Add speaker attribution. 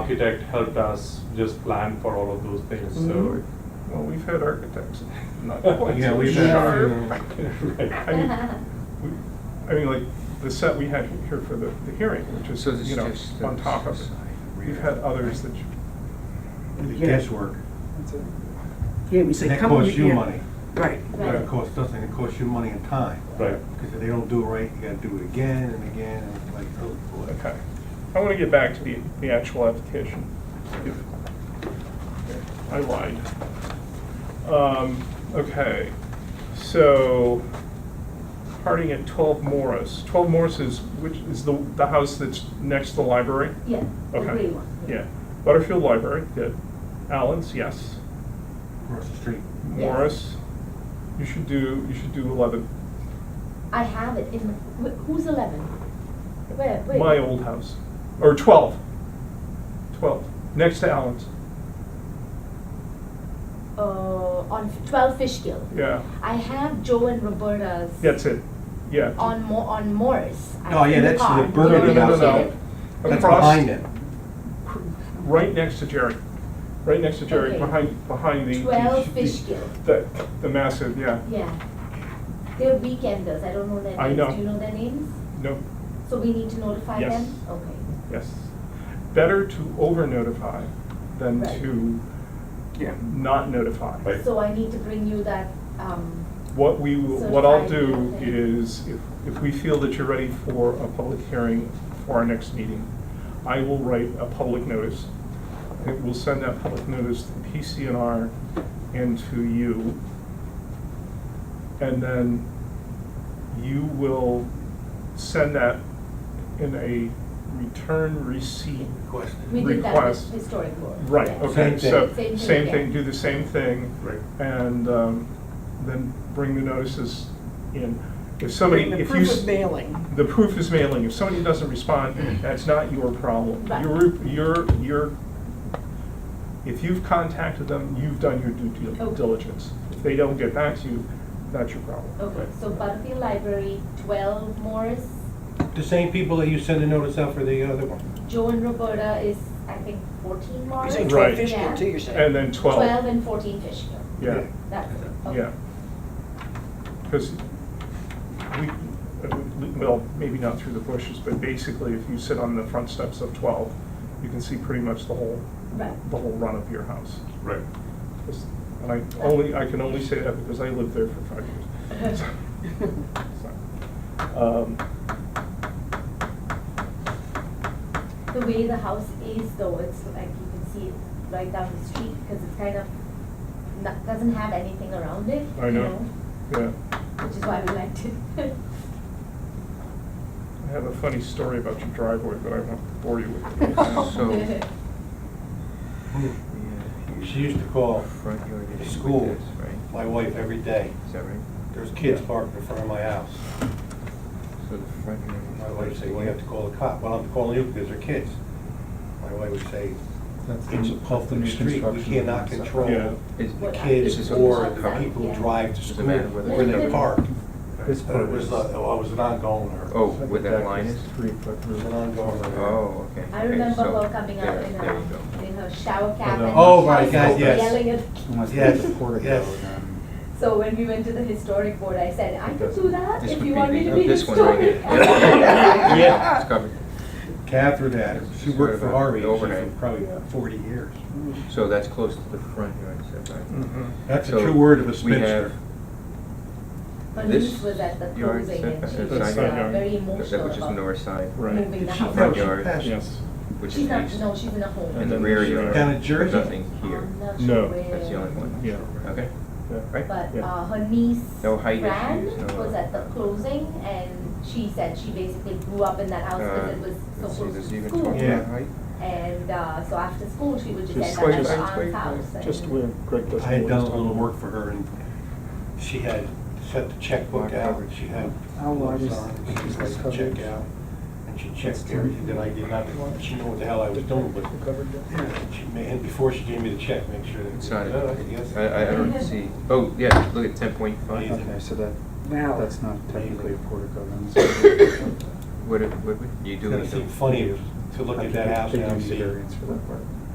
Speaker 1: architect helped us just plan for all of those things, so.
Speaker 2: Well, we've had architects, not quite.
Speaker 3: Yeah,
Speaker 2: so
Speaker 3: we've
Speaker 2: sure.
Speaker 3: had
Speaker 4: our-
Speaker 2: I mean, we- I mean, like, the set we had here for the, the hearing, which is,
Speaker 3: So this
Speaker 2: you know,
Speaker 3: just
Speaker 2: on
Speaker 3: the
Speaker 2: top of it.
Speaker 3: side,
Speaker 2: We've
Speaker 3: rear.
Speaker 2: had others that, you-
Speaker 3: The
Speaker 4: Yeah.
Speaker 3: guesswork.
Speaker 5: That's it.
Speaker 4: Yeah, we
Speaker 3: And
Speaker 4: said,
Speaker 3: that
Speaker 4: come over
Speaker 3: costs
Speaker 4: here.
Speaker 3: you money.
Speaker 4: Right.
Speaker 2: Right.
Speaker 3: That costs us, and it costs you money and time.
Speaker 1: Right.
Speaker 3: Because if they don't do it right, you gotta do it again and again, and it's like, oh, boy.
Speaker 2: okay. I want to get back to the, the actual application. If- I lied. Um, okay, so, parting at twelve Morris. Twelve Morris is, which is the, the house that's next to the library?
Speaker 6: Yeah, the
Speaker 2: Okay.
Speaker 6: gray one.
Speaker 2: Yeah, Butterfield Library, good. Allen's, yes.
Speaker 3: Across the street.
Speaker 6: Yeah.
Speaker 2: Morris, you should do, you should do eleven.
Speaker 6: I have it in, wh- who's eleven? Where, where?
Speaker 2: My old house, or twelve. Twelve, next to Allen's,
Speaker 6: Uh, on f- twelve Fishkill.
Speaker 2: yeah,
Speaker 6: I have Joe and Roberta's.
Speaker 2: that's it, yeah.
Speaker 6: On Mo- on Morris. I-
Speaker 3: Oh, yeah,
Speaker 6: in
Speaker 3: that's the
Speaker 6: car.
Speaker 3: Burger
Speaker 2: No, no,
Speaker 6: Yeah,
Speaker 2: no,
Speaker 3: house.
Speaker 2: no, no.
Speaker 3: That's
Speaker 2: Across-
Speaker 3: behind it.
Speaker 2: cr- Right next to Jerry, right next to Jerry,
Speaker 6: Okay.
Speaker 2: behind, behind the.
Speaker 6: Twelve
Speaker 2: the-
Speaker 6: Fishkill,
Speaker 2: The, the massive, yeah,
Speaker 6: yeah. They're weekenders, I don't know their
Speaker 2: I
Speaker 6: names,
Speaker 2: know.
Speaker 6: do you know their names?
Speaker 2: no,
Speaker 6: So we need to notify them?
Speaker 2: Yes.
Speaker 6: Okay,
Speaker 2: yes. Better to over notify than
Speaker 6: Right.
Speaker 2: to
Speaker 5: Yeah.
Speaker 2: not notify.
Speaker 1: Right.
Speaker 6: so I need to bring you that, um,
Speaker 2: What we, will-
Speaker 6: So
Speaker 2: what I'll
Speaker 6: five
Speaker 2: do
Speaker 6: minutes.
Speaker 2: is, if, if we feel that you're ready for a public hearing for our next meeting, I will write a public notice. And we'll send that public notice to the PCNR and to you. And then you will send that in a return receipt.
Speaker 3: Request.
Speaker 6: we did that
Speaker 2: Request.
Speaker 6: with historic board.
Speaker 2: Right,
Speaker 6: yeah.
Speaker 2: okay,
Speaker 3: Same thing.
Speaker 2: so,
Speaker 6: Same thing
Speaker 2: same
Speaker 6: again.
Speaker 2: thing, do the same thing
Speaker 1: Right.
Speaker 2: and um, then bring the notices in. If somebody,
Speaker 5: Bring the
Speaker 2: if you.
Speaker 5: proof
Speaker 2: s-
Speaker 5: of mailing.
Speaker 2: The proof is mailing. If somebody doesn't respond, that's not your problem.
Speaker 6: Right.
Speaker 2: Your, your, your, if you've contacted them, you've done your due dil-
Speaker 6: Okay.
Speaker 2: diligence. If they don't get back to you, that's your problem.
Speaker 6: Okay, so Butterfield Library, twelve Morris,
Speaker 3: The same people that you send a notice out for the other one.
Speaker 6: Joe and Roberta is, I think, fourteen
Speaker 5: You're
Speaker 6: Morris?
Speaker 5: saying
Speaker 2: Right.
Speaker 5: twelve Fishkill too, you're saying?
Speaker 2: And then
Speaker 6: Twelve
Speaker 2: twelve,
Speaker 6: and fourteen Fishkill,
Speaker 2: yeah,
Speaker 6: that's it, okay.
Speaker 2: yeah. Because we, well, maybe not through the bushes, but basically if you sit on the front steps of twelve, you can see pretty much the whole
Speaker 6: Right,
Speaker 2: the whole run of your house.
Speaker 1: Right.
Speaker 2: And I only, I can only say that because I lived there for five years. So, um,
Speaker 6: the way the house is though, it's like you can see it right down the street, because it's kind of, not, doesn't have anything around it,
Speaker 2: I
Speaker 6: you
Speaker 2: know. Yeah,
Speaker 6: Which is why we liked it.
Speaker 2: I have a funny story about your driveway, but I won't bore you with it. now.
Speaker 3: So- Hmm. She used to call
Speaker 7: Front yard
Speaker 3: the
Speaker 7: is
Speaker 3: school,
Speaker 7: like this, right?
Speaker 3: my wife, every day.
Speaker 7: Is that right?
Speaker 3: There's kids parked in front of my house.
Speaker 7: So the front yard is.
Speaker 3: My wife said, well, you have to
Speaker 7: like-
Speaker 3: call the cop. Well, I'm calling you because they're kids. My wife would say,
Speaker 7: That's
Speaker 3: it's a public street. We
Speaker 7: construction
Speaker 3: cannot
Speaker 7: and stuff.
Speaker 3: control
Speaker 2: Yeah.
Speaker 7: Is-
Speaker 3: the
Speaker 6: What-
Speaker 3: kids
Speaker 7: This is
Speaker 3: or
Speaker 7: what-
Speaker 3: the people who
Speaker 6: Yeah.
Speaker 3: drive to
Speaker 7: Doesn't
Speaker 3: school
Speaker 7: matter whether
Speaker 3: where
Speaker 6: it's
Speaker 3: they
Speaker 6: open.
Speaker 3: park.
Speaker 7: This
Speaker 3: But it was,
Speaker 7: part
Speaker 3: a-
Speaker 7: is-
Speaker 3: oh, it was an ongoing or.
Speaker 7: Oh, where that line is?
Speaker 2: Three foot
Speaker 3: It was an ongoing or.
Speaker 7: Oh, okay.
Speaker 6: I
Speaker 7: okay,
Speaker 6: remember
Speaker 7: so
Speaker 6: her coming out uh,
Speaker 7: there-
Speaker 6: in
Speaker 7: There you
Speaker 6: her,
Speaker 7: go.
Speaker 6: in her shower cap
Speaker 1: Oh,
Speaker 6: and.
Speaker 3: oh my
Speaker 6: she
Speaker 3: God,
Speaker 6: was
Speaker 3: yes.
Speaker 6: Yelling at,
Speaker 7: Unless
Speaker 3: Yes,
Speaker 7: there's a portico,
Speaker 3: yes.
Speaker 7: then-
Speaker 6: so when we went to the historic board, I said, I could do that
Speaker 7: This
Speaker 6: if
Speaker 7: would
Speaker 6: you want me to
Speaker 7: oh,
Speaker 6: be
Speaker 7: This one right
Speaker 6: historic.
Speaker 7: here. Yeah, it's covered.
Speaker 3: Catherine had, she worked for Harvey, she
Speaker 7: Overnight.
Speaker 3: for probably forty years.
Speaker 7: So that's close to the front yard setback.
Speaker 3: That's a
Speaker 7: So
Speaker 3: true word of a
Speaker 7: we have-
Speaker 3: spinster.
Speaker 6: Bernice was at the
Speaker 7: This yard
Speaker 6: closing and
Speaker 7: setback-
Speaker 6: she
Speaker 7: uh,
Speaker 6: was
Speaker 2: side
Speaker 6: uh,
Speaker 2: yard.
Speaker 6: very
Speaker 7: That-
Speaker 6: emotional
Speaker 7: Which is the
Speaker 6: about
Speaker 7: north side,
Speaker 2: Right.
Speaker 6: moving the
Speaker 3: Did she
Speaker 6: house.
Speaker 7: front
Speaker 3: she
Speaker 7: yard,
Speaker 3: passed?
Speaker 2: Yes.
Speaker 7: which is
Speaker 6: She's not,
Speaker 7: east.
Speaker 6: no, she's in a home.
Speaker 7: And the
Speaker 2: then
Speaker 7: rear
Speaker 2: she-
Speaker 7: yard.
Speaker 3: Down in Jersey?
Speaker 7: Nothing here.
Speaker 6: I'm not
Speaker 2: No.
Speaker 6: sure where.
Speaker 7: That's the only one.
Speaker 2: Yeah.
Speaker 7: Okay, right?
Speaker 6: But
Speaker 2: Yeah.
Speaker 6: uh, her niece,
Speaker 7: No height
Speaker 6: Fran,
Speaker 7: issues, no-
Speaker 6: was at the closing, and she said she basically grew up in that house
Speaker 7: Uh,
Speaker 6: because it was so
Speaker 7: let's see,
Speaker 6: close
Speaker 7: does
Speaker 6: to
Speaker 7: he even
Speaker 6: school.
Speaker 7: talk about
Speaker 3: Yeah.
Speaker 7: height?
Speaker 6: And uh, so after school, she would just
Speaker 2: Just
Speaker 6: end up at
Speaker 2: wait,
Speaker 6: her
Speaker 7: wait, wait,
Speaker 6: aunt's house. and-
Speaker 2: Just where Greg does.
Speaker 3: I had done a little work for her and she had set the checkbook out, she had.
Speaker 5: How wide is
Speaker 3: signs,
Speaker 5: is
Speaker 3: she
Speaker 5: this
Speaker 3: was like,
Speaker 5: coverage?
Speaker 3: check out. And she checked everything that I did not, she knew what the hell I was doing, but she ma- and before she gave me the check, make sure that.
Speaker 7: It's not,
Speaker 3: Uh, yes.
Speaker 7: I, I- I don't see, oh, yeah, look at ten point five.
Speaker 3: Yeah.
Speaker 7: What,
Speaker 3: Okay,
Speaker 8: Okay, so that,
Speaker 5: Wow.
Speaker 8: that's not technically
Speaker 3: technically a
Speaker 8: a portico
Speaker 7: what, what, you do.
Speaker 3: It's gonna
Speaker 7: leave
Speaker 3: seem
Speaker 7: the-
Speaker 3: funny if to look at that house now and see.
Speaker 4: variance for that part.